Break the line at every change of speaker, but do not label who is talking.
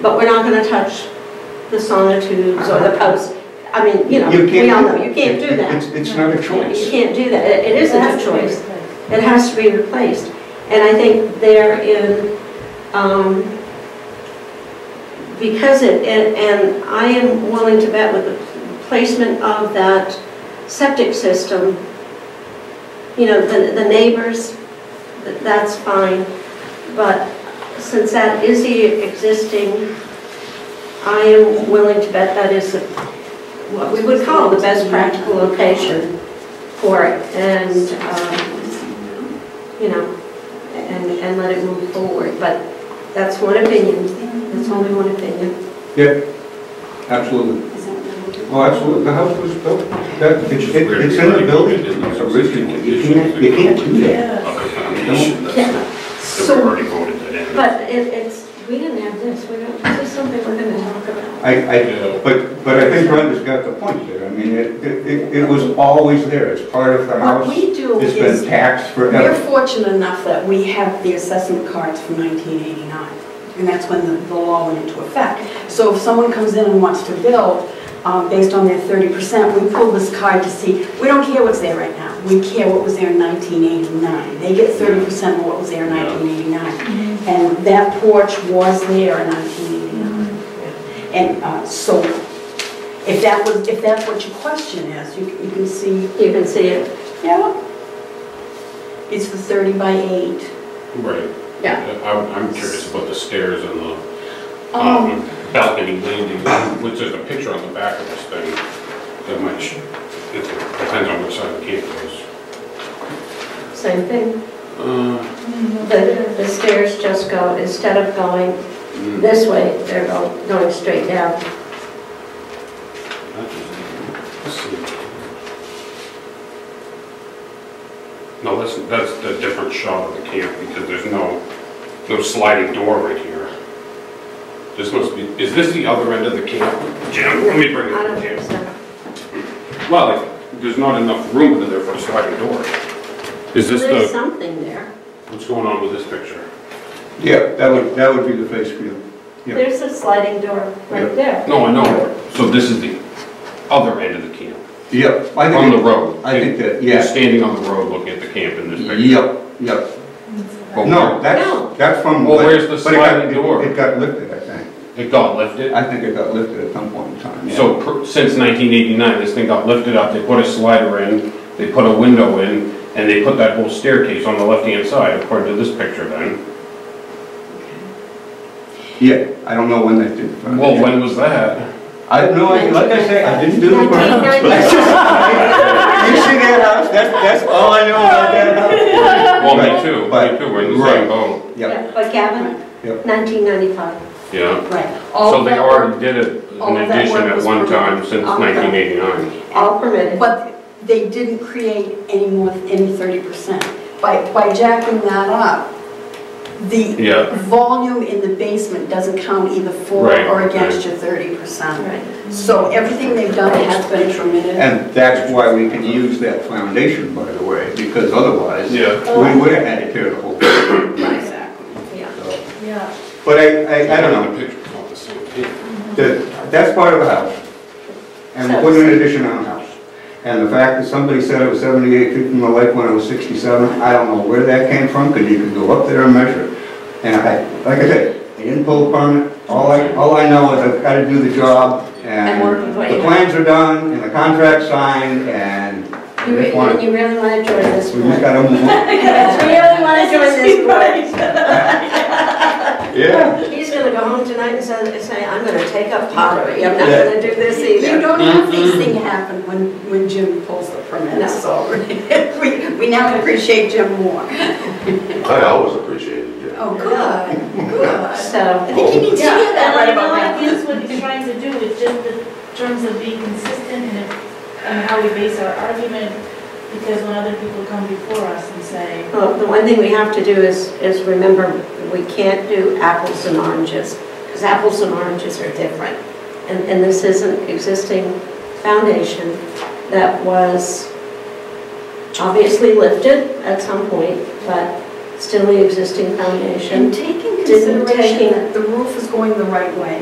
But we're not gonna touch the sonotubes or the posts. I mean, you know,
You can't
we all
do
know,
it.
you can't do
It's,
that.
it's not a
You
choice.
can't do that. It it isn't a choice. It has to be replaced. And I think therein, um, because it, and- and I am willing to bet with the placement of that septic system, you know, the the neighbors, th- that's fine. But since that is the existing, I am willing to bet that is what we would call the best practical location for it. And, um, you know, and, and let it move forward. But that's one opinion. That's only one opinion.
Absolutely. Oh, absolutely. The house was built, that, it's, it- it's in the building originally. You can't, you can't do that.
Other foundation that's- that we've
So,
already voted that in.
but it, it's, we didn't have this. We don't, this is something we're gonna talk about.
I, I, but, but I think Brenda's got the point there. I mean, it, it, it was always there. It's part of the
What
house.
we do
It's been
is,
taxed
we're
forever.
fortunate enough that we have the assessment cards from 1989, and that's when the the law went into effect. So if someone comes in and wants to build um, based on their 30%, we pull this card to see, we don't care what's there right now, we care what was there in 1989. They get 30% of what was there in 1989. And that porch was there in 1989. And uh, so, if that was, if that's what your question is, you you can see
You can see it.
yeah. It's the 30 by 8.
Right.
Yeah.
I'm, I'm curious about the stairs and the
Um,
um, balcony landing, which is a picture on the back of this thing that might, sh- it depends on which side the gate goes.
Same thing.
Uh,
Mm-hmm.
The, the stairs just go, instead of going
mm, that
this way, they're going, going straight down.
is- let's see. No, that's, that's the different shot of the camp because there's no, no sliding door right here. This must be, is this the other end of the camp? Jim, let me bring
I
it
don't
up, Jim.
think so.
Well, like, there's not enough room in there for a sliding door. Is this
There's
the,
something there.
what's going on with this picture?
Yeah, that would, that would be the face view. Yeah.
There's a sliding door right there.
No, I know, so this is the other end of the camp,
Yep. I
on the
think,
road.
I think that,
You're
yeah.
standing on the road looking at the camp in this picture.
Yep, yep.
But
No,
No.
that's, that's from.
Well, Oh, where's the
but it got-
sliding
it-
door?
It got lifted, I think.
It got lifted,
I think it got lifted at some point in time. yeah.
so per- since nineteen eighty-nine, this thing got lifted up, they put a slider in, they put a window in, and they put that whole staircase on the left-hand side, according to this picture then.
Yeah, I don't know when they did. it.
Well, when was that?
I have no idea, like I say, I didn't do the burn. You
1990.
see that house, that's, that's all I know about that house.
Well,
Right,
me too,
but-
me too, we're in the
right.
same boat,
Yep,
Yeah, But Gavin,
Yep.
1995.
yeah.
Right. All
So they
that
already did it
all
an
of that
addition
work
at
was
one
permitted.
time since
All of that.
nineteen eighty-nine.
All permitted.
But they didn't create any more, any 30%. By, by jacking that up, the
Yeah,
volume in the basement doesn't count either for
Right,
or against
right.
your 30%.
Right.
So everything they've done has been permitted.
and that's why we can use that foundation, by the way, because otherwise, we
yeah.
would have had to tear the whole thing.
Exactly.
Yeah.
so.
Yeah.
But I, I, I don't know,
The picture's not the same thing.
that, that's part of the house. And we put an addition on the house. And the fact that somebody said I was seventy-eight feet from the lake when I was sixty-seven, I don't know where that came from, because you could go up there and measure it. And I, like I said, I didn't pull a permit, all I, all I know is I've gotta do the job, and
And work with what
the
you
plans are done, and the contract's signed, and
You
we
re-
just wanna,
You really want to join this
we just
board?
gotta move on.
You really want to join this
Yeah.
board? He's going to go home tonight and say, say, I'm going to take up pottery. I'm not
Yeah.
going to do this
You
either.
don't have these things happen when, when Jim pulls the permit, so we, we now appreciate Jim more.
I always appreciate it, yeah.
Oh, good, good.
So,
I think he needs to hear
Yeah,
that
right
right
about
now.
that.
I guess what he's trying to do is just in terms of being consistent and, and how we base our argument, because when other people come before us and say,
well, the one thing we have to do is, is remember, we can't do apples and oranges, because apples and oranges are different. And, and this is an existing foundation that was obviously lifted at some point, but still the existing foundation.
And taking consideration
taking-
that the roof is going the right way,